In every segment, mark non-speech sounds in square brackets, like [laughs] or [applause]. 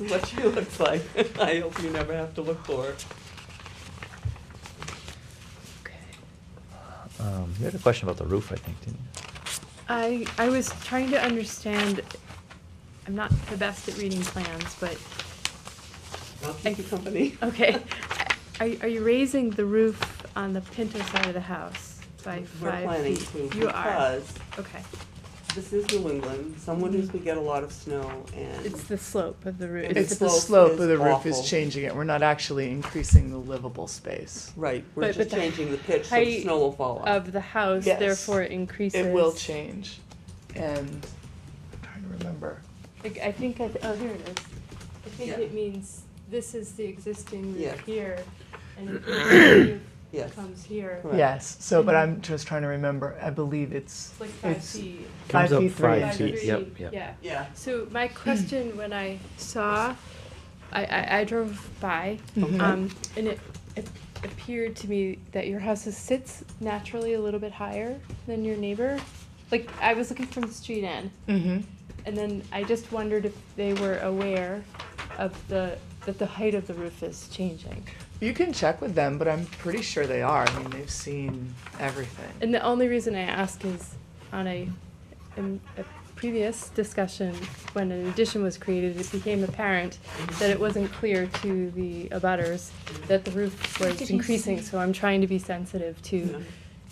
is what she [laughs] looks like. I hope you never have to look for her. Um, you had a question about the roof, I think, didn't you? I, I was trying to understand, I'm not the best at reading plans, but, [laughs] I'll keep you company. okay. Are, are you raising the roof on the Pinto side of the house by We're five planning feet? to You are, because okay. this is New England. Some winters we get a lot of snow and It's the slope of the roof. It's It's the slope slope is of the roof awful. is changing it. We're not actually increasing the livable space. right, we're But- just but the changing the pitch so the height snow will fall off. Of the house, Yes. therefore it increases. It will change. And I'm trying to remember. Like, I think, I- oh, here it is. I think Yeah. it means this is the existing Yeah. roof here, and if [coughs] the Yes. roof comes here, Correct. Yes. So, but I'm just trying to remember. I believe it's it's like five It's- feet. Comes Five up feet, three five Five feet, feet, Yep, yep. Yeah. Yeah. So my question, when I saw, I, I, I drove by, Mhm. um, and it, it appeared to me that your house is- sits naturally a little bit higher than your neighbor. Like, I was looking from the street end, Mhm. and then I just wondered if they were aware of the, that the height of the roof is changing. You can check with them, but I'm pretty sure they are. I mean, they've seen everything. And the only reason I ask is on a, in a previous discussion, when an addition was created, it became apparent that it wasn't clear to the abutters that the roof was increasing, so I'm trying to be sensitive Yeah. to,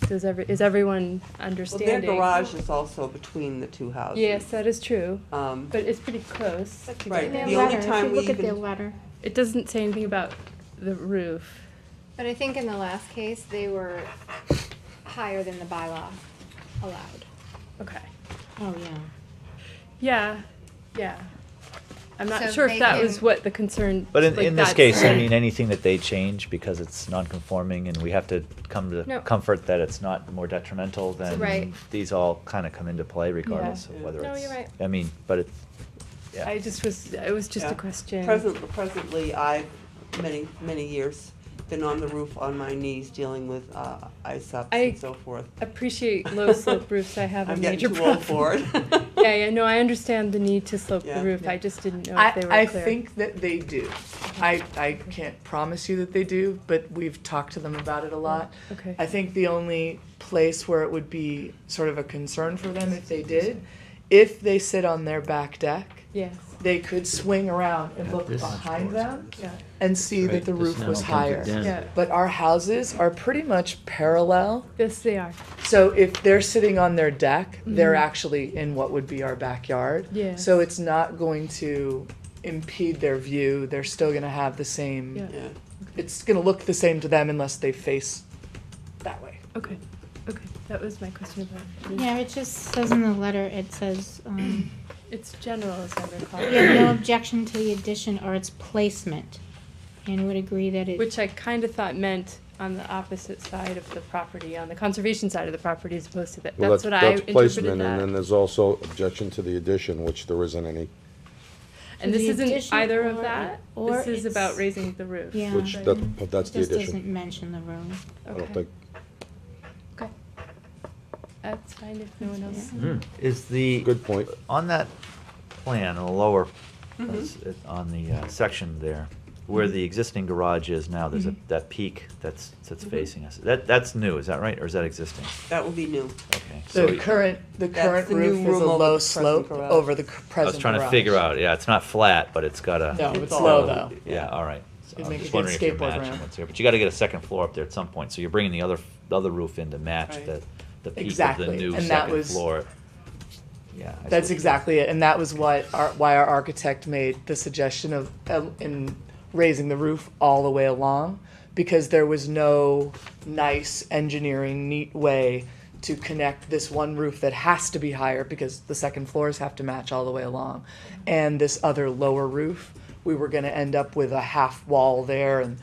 does every, is everyone Well, their understanding? garage is also between the two houses. Yes, that is true, Um, but it's pretty close. Right, In their the only letter, if time you we look at their even, letter. It doesn't say anything about the roof. But I think in the last case, they were higher than the bylaw allowed. Okay, Oh, yeah. yeah, yeah. I'm So not sure they if that was can- what the concern, But in, like in this that's- case, I mean, anything that they change because it's non-conforming and we have to come to No. comfort that it's not more detrimental Right. then these all kind of come into play regardless Yeah. of whether No, it's, you're right. I mean, but it's, yeah. I just was, it was just Yeah. a question. present, presently, I've, many, many years, been on the roof on my knees dealing with, uh, ice ups I- and so forth. Appreciate [laughs] low slope roofs, I have a I'm getting major too problem. old for it. Yeah, yeah, no, I understand the need to slope Yeah. the roof, I just didn't know if they were I, I clear. think that they do. I, I can't promise you that they do, but we've talked to them about it a lot. Okay. I think the only place where it would be sort of a concern for them if they did, if they sit on their back deck, Yes, they could swing around and look this behind board's them yeah, and see that Right, the this roof now was comes up higher. down. yeah, But our houses are pretty much parallel, yes, they are, so if they're sitting on their deck, they're actually in what would be our backyard. Yeah. So it's not going to impede their view, they're still gonna have the same, Yeah. [laughs] Yeah. it's gonna look the same to them unless they face that way. okay, okay, that was my question about. roof. Yeah, it just says in the letter, it says, [coughs] um, It's general, as I recall, we have no objection to the addition or its placement, and would agree that it. which I kind of thought meant on the opposite side of the property, on the conservation side of the property as opposed to that, Well, that's what I that's interpreted placement, And then that. there's also objection to the addition, which there isn't any, And this The isn't addition either or of it- that, or this is it's- about raising the roof. Yeah. which, Right. that, but that's It the just doesn't addition. mention the room. I Okay. don't think, Okay. That's fine if no one else. Hmm. Is the. Hmm. good point. On that plan, the lower, Mm-hmm. Mm-hmm. that's it- on the uh, section there, where the existing garage is now, there's Mm-hmm. a, that peak that's, that's facing us. That, that's new, is that right, or is that existing? That will be new. Okay. so The current, the That's current the roof new is room a over low the present slope garage. over the c- I present garage. was trying to figure out, yeah, it's not flat, but it's got No, a, Oh, it's all- low though. yeah, all right. So It'd I'm make just a good wondering if you're skateboard matching ramp. what's here, but you gotta get a second floor up there at some point, so you're bringing the other, the other roof in to match Right. the, the peak of the Exactly, new and that second was- floor. Yeah. I see what That's you're- exactly it, and that was what our, why our architect made the suggestion of uh, in raising the roof all the way along, because there was no nice engineering neat way to connect this one roof that has to be higher because the second floors have to match all the way along, and this other lower roof. We were going to end up with a half wall there, and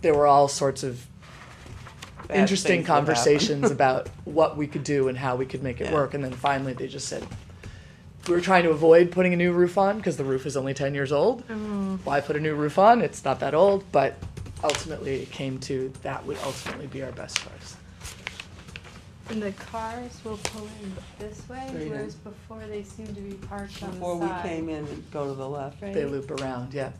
there were all sorts of Bad interesting things will happen. [laughs] conversations about what we could do and how we could make it Yeah. work. And then finally, they just said, we were trying to avoid putting a new roof on because the roof is only 10 years old. Why put a new roof on? It's not that old. But ultimately, it came to that would ultimately be our best choice. And the cars will pull in this way, Right in. whereas before they seem to be parked on the side. Before we came in, go to the left. right? They loop around, yeah.